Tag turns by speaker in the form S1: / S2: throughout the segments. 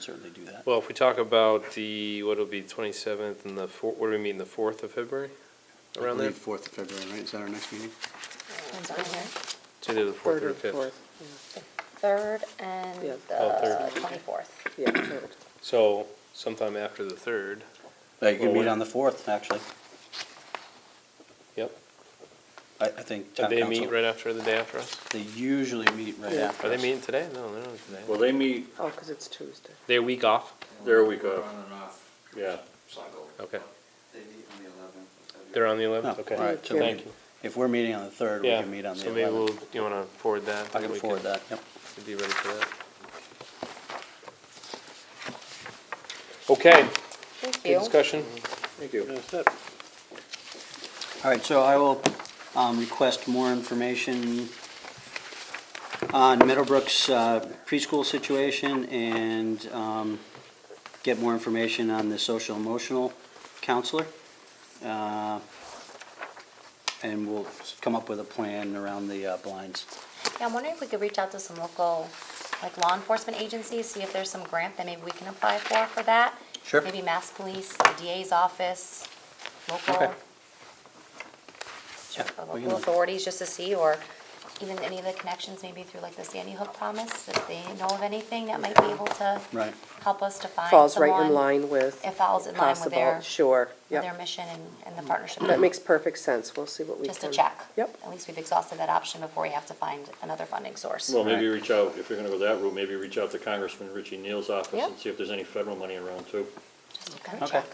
S1: certainly do that.
S2: Well, if we talk about the, what'll be twenty-seventh and the four, what do we mean, the fourth of February? Around there?
S1: Fourth of February, right, is that our next meeting?
S3: Depends on where.
S2: It's either the fourth or the fifth.
S3: Third and
S4: Yeah.
S2: Oh,
S3: the
S2: third.
S3: twenty-fourth.
S4: Yeah, third.
S2: So sometime after the third,
S1: You can meet
S2: Forward.
S1: on the fourth, actually.
S2: yep.
S1: I, I think
S2: Do
S1: town
S2: they meet
S1: council,
S2: right after the day after us?
S1: they usually meet right
S4: Yeah.
S1: after.
S2: Are they
S1: us.
S2: meeting today? No, they're not today.
S5: Well, they meet,
S4: Oh, because it's Tuesday.
S2: They're a week off?
S5: they're a week off. Yeah.
S2: Okay.
S6: They meet on the eleventh.
S2: They're on the
S1: No,
S2: eleventh? Okay.
S1: all right, so
S4: Yeah.
S1: we-
S2: Thank you.
S1: If we're meeting on the third, we
S2: Yeah,
S1: can meet on the
S2: so maybe we'll,
S1: eleventh.
S2: you wanna forward that?
S1: I can forward that, yep.
S2: We'd Be ready for that. Okay,
S3: Thank
S2: good
S3: you.
S2: discussion.
S5: Thank you.
S1: All right, so I will um, request more information on Meadowbrook's uh, preschool situation and um, get more information on the social emotional counselor. Uh, And we'll come up with a plan around the uh, blinds.
S3: Yeah, I'm wondering if we could reach out to some local, like law enforcement agencies, see if there's some grant that maybe we can apply for, for that.
S1: Sure.
S3: Maybe Mass Police, the DA's office, local.
S1: Okay.
S3: Sure,
S1: Yeah, we can
S3: Local
S1: look.
S3: authorities, just to see, or even any of the connections, maybe through like the Sandy Hook Promise, if they know of anything that might be able to
S1: Right.
S3: help us to find someone.
S4: Falls right in line with
S3: It falls in line with
S4: possible,
S3: their,
S4: sure,
S3: with their
S4: yep.
S3: mission and, and the partnership.
S4: That makes perfect sense, we'll see what we can.
S3: Just a check.
S4: Yep,
S3: At least we've exhausted that option before we have to find another funding source.
S5: Well, maybe reach out, if you're gonna go that route, maybe reach out to Congressman Richie Neal's office
S3: Yeah.
S5: and see if there's any federal money around too.
S3: Just to kind of
S1: Okay.
S3: check.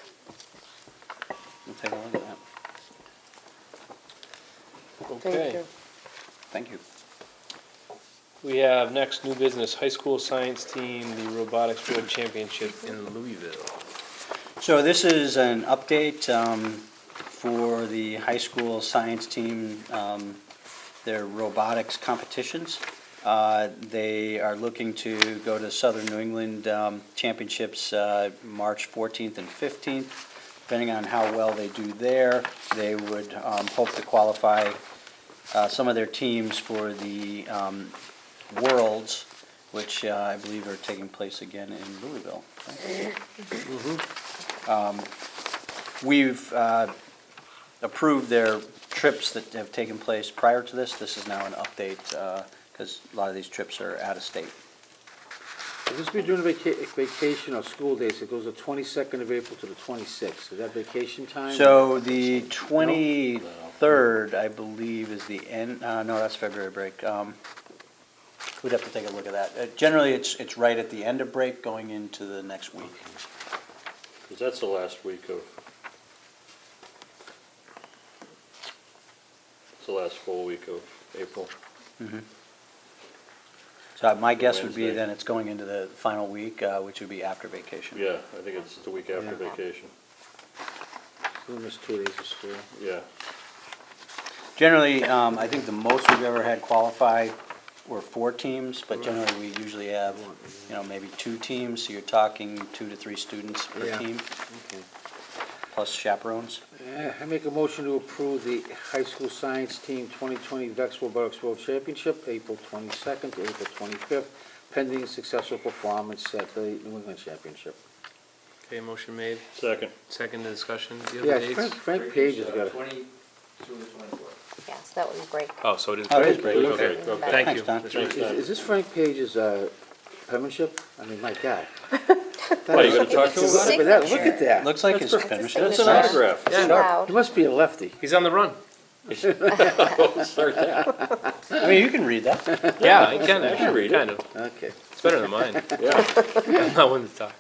S1: We'll take a look at that.
S4: thank
S2: Okay,
S4: you.
S1: Thank you.
S2: we have next new business, high school science team, the robotics world championship in Louisville.
S1: So this is an update um, for the high school science team, um, their robotics competitions. Uh, They are looking to go to Southern New England um, Championships uh, March 14th and 15th. Depending on how well they do there, they would um, hope to qualify uh, some of their teams for the um, Worlds, which uh, I believe are taking place again in Louisville. We've uh, approved their trips that have taken place prior to this. This is now an update, because a lot of these trips are out of state.
S6: Will this be during vaca- vacation or school days? It goes the twenty-second of April to the twenty-sixth. Is that vacation time?
S1: So the 23rd, I believe, is the end, uh, no, that's February break. Um, We'd have to take a look at that. Uh, Generally, it's, it's right at the end of break going into the next week.
S5: Cause that's the last week of. It's the last full week of April.
S1: So my guess would be
S5: Wednesday.
S1: then it's going into the final week, uh, which would be after vacation.
S5: Yeah, I think it's the week after vacation.
S6: We'll miss two days of school.
S5: Yeah.
S1: Generally, um, I think the most we've ever had qualify were four teams, but generally, we usually have, you know, maybe two teams, so you're talking two to three students per
S6: Yeah.
S1: team,
S6: Okay.
S1: plus chaperones.
S6: Eh, I make a motion to approve the high school science team twenty-twenty Vexwell Bucks World Championship, April twenty-second to April twenty-fifth, pending successful performance at the New England Championship.
S2: Okay, motion made,
S5: Second,
S2: second to discussion, do you
S6: Yeah,
S2: have the
S6: Frank,
S2: dates?
S6: Frank Page has got it.
S3: Yeah, so that would be great.
S2: Oh, so it is.
S1: Oh, it is
S2: break.
S1: break.
S5: Okay, okay.
S2: Thank
S1: Thanks,
S2: you.
S1: Don.
S2: That's right.
S5: Thanks.
S6: Is, is this Frank Page's, uh, penmanship? I mean, my God.
S5: Why, you gonna talk to him
S3: It's
S5: about it?
S3: a
S6: Look at that, look at
S3: signature.
S1: It
S6: that.
S1: Looks like his
S3: That's a
S1: penmanship.
S3: signature.
S5: That's an autograph.
S3: It's allowed.
S6: He must be a lefty.
S2: He's on the run.
S5: Start that.
S1: I mean, you can read that.
S2: Yeah, I can,
S5: can
S2: actually,
S5: read
S2: kind of.
S6: Okay.
S2: It's better than mine.
S5: Yeah.
S2: I'm not one to talk.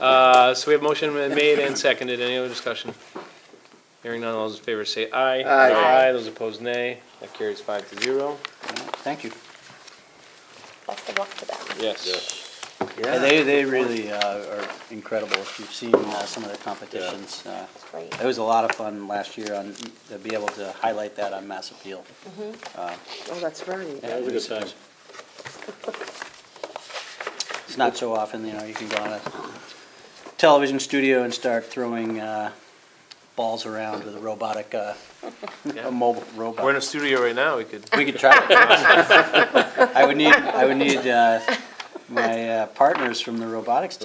S2: Uh, so we have motion made and seconded. Any other discussion? Hearing none, all those in favor say aye.
S6: Aye.
S3: Aye.
S2: Those opposed, nay. That carries five to zero.
S1: Thank you.
S3: Best of luck to them.
S2: Yes.
S1: Yeah,
S6: Yeah.
S1: They, they really uh, are incredible. If you've seen uh, some of their competitions, uh,
S3: It's great.
S1: it was a lot of fun last year on, to be able to highlight that on Mass Appeal.
S4: Oh, that's right.
S5: That was a good time.
S1: It's not so often, you know, you can go on a television studio and start throwing uh, balls around with a robotic, uh,
S2: Yeah.
S1: a mobile
S2: We're in a
S1: robot.
S2: studio right now. We could,
S1: We could try it. I would need, I would need uh, my uh, partners from the robotics team.